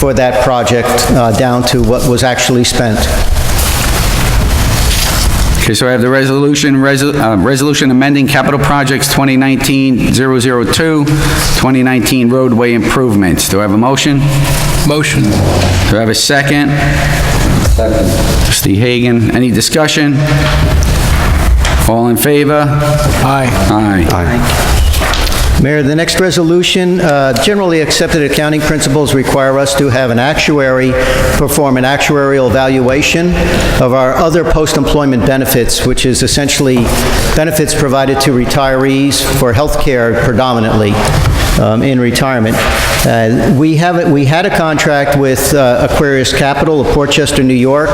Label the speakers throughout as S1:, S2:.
S1: for that project uh, down to what was actually spent.
S2: Okay, so I have the resolution, resol- uh, resolution amending capital projects 2019-002, 2019 roadway improvements. Do I have a motion?
S3: Motion.
S2: Do I have a second? Second. Trustee Hagan, any discussion? All in favor?
S3: Aye.
S2: Aye. Aye.
S1: Mayor, the next resolution, uh, generally accepted accounting principles require us to have an actuary perform an actuarial valuation of our other post-employment benefits, which is essentially benefits provided to retirees for health care predominantly um, in retirement. Uh, We have, it- we had a contract with uh, Aquarius Capital of Portchester, New York,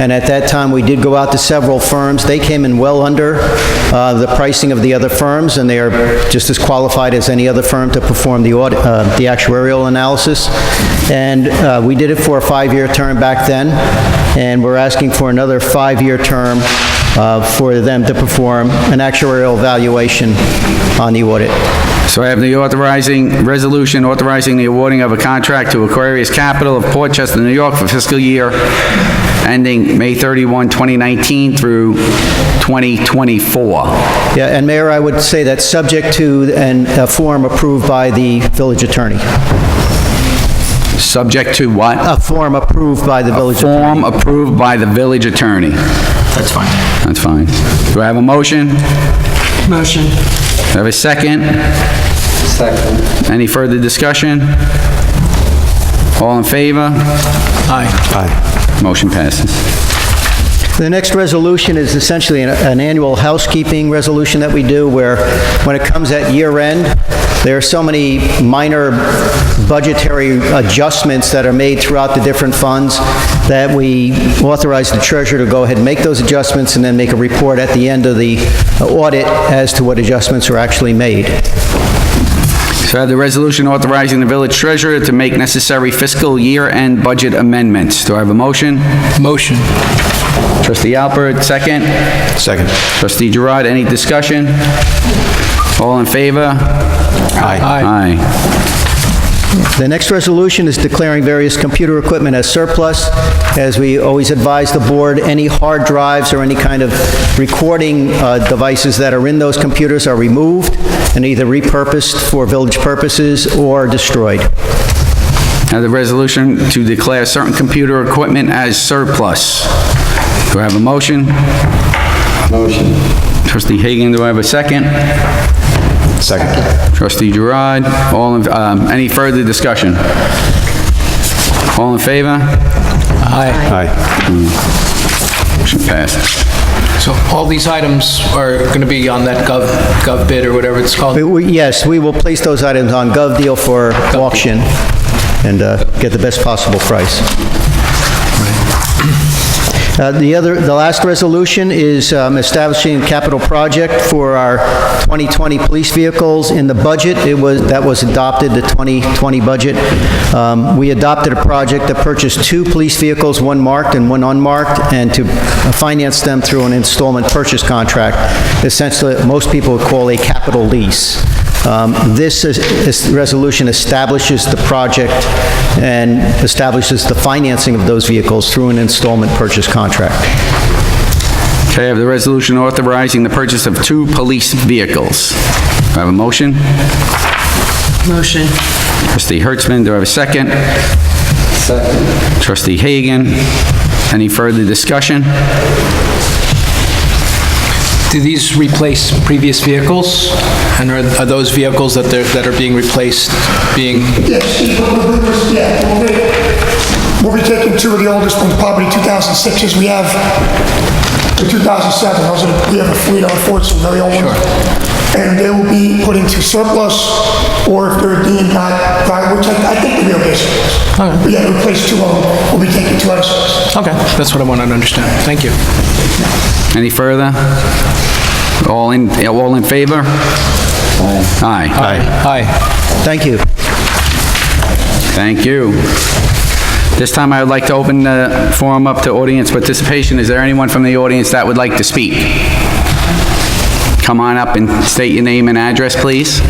S1: and at that time, we did go out to several firms. They came in well under uh, the pricing of the other firms, and they are just as qualified as any other firm to perform the audit, uh, the actuarial analysis. And uh, we did it for a five-year term back then, and we're asking for another five-year term uh, for them to perform an actuarial valuation on the audit.
S2: So I have the authorizing, resolution authorizing the awarding of a contract to Aquarius Capital of Portchester, New York for fiscal year ending May 31, 2019 through 2024.
S1: Yeah, and Mayor, I would say that's subject to an- a form approved by the village attorney.
S2: Subject to what?
S1: A form approved by the village attorney.
S2: Form approved by the village attorney.
S4: That's fine.
S2: That's fine. Do I have a motion? Do I
S4: Motion.
S2: have a second?
S4: Second.
S2: Any further discussion? All in favor?
S3: Aye.
S2: Motion passes.
S1: The next resolution is essentially an- an annual housekeeping resolution that we do, where when it comes at year end, there are so many minor budgetary adjustments that are made throughout the different funds that we authorize the treasurer to go ahead and make those adjustments and then make a report at the end of the audit as to what adjustments are actually made.
S2: So I have the resolution authorizing the village treasurer to make necessary fiscal year-end budget amendments. Do I have a motion?
S3: Motion.
S2: Trustee Alpert, second.
S3: Second.
S2: Trustee Gerard, any discussion? All in favor? Aye.
S3: Aye.
S1: The next resolution is declaring various computer equipment as surplus. As we always advise the board, any hard drives or any kind of recording uh, devices that are in those computers are removed and either repurposed for village purposes or destroyed.
S2: Now the resolution to declare certain computer equipment as surplus. Do I have a motion?
S4: Motion.
S2: Trustee Hagan, do I have a second?
S4: Second.
S2: Trustee Gerard, all, in- um, any further discussion? All in favor?
S3: Aye.
S4: Aye.
S2: Motion passes.
S3: So all these items are going to be on that gov, gov bid or whatever it's called?
S1: We- we- Yes, we will place those items on GovDeal for auction and uh, get the best possible price. Uh, The other, the last resolution is um, establishing a capital project for our 2020 police vehicles in the budget. It was, that was adopted, the 2020 budget. Um, We adopted a project to purchase two police vehicles, one marked and one unmarked, and to finance them through an installment purchase contract, essentially, most people would call a capital lease. Um, This is- this resolution establishes the project and establishes the financing of those vehicles through an installment purchase contract.
S2: Okay, I have the resolution authorizing the purchase of two police vehicles. Do I have a motion?
S4: Motion.
S2: Trustee Hertzman, do I have a second?
S4: Second.
S2: Trustee Hagan, any further discussion?
S3: Do these replace previous vehicles? And are, are those vehicles that they're, that are being replaced being,
S5: Yes, she's one of the newest, yeah. We'll be, we'll be taking two of the oldest ones, probably 2006s. We have the 2007, those are, the- we have a fleet on Ford's, some very old ones. And they will be put into surplus, or if they're deemed not, right, which I, I think the real basic is.
S3: All right.
S5: We have replaced two of them, we'll be taking two out of service.
S3: okay, that's what I wanted to understand. Thank you.
S2: Any further? All in, all in favor? Aye. Aye.
S3: Aye.
S1: Thank you.
S2: Thank you. This time I would like to open the forum up to audience participation. Is there anyone from the audience that would like to speak? Come on up and state your name and address, please.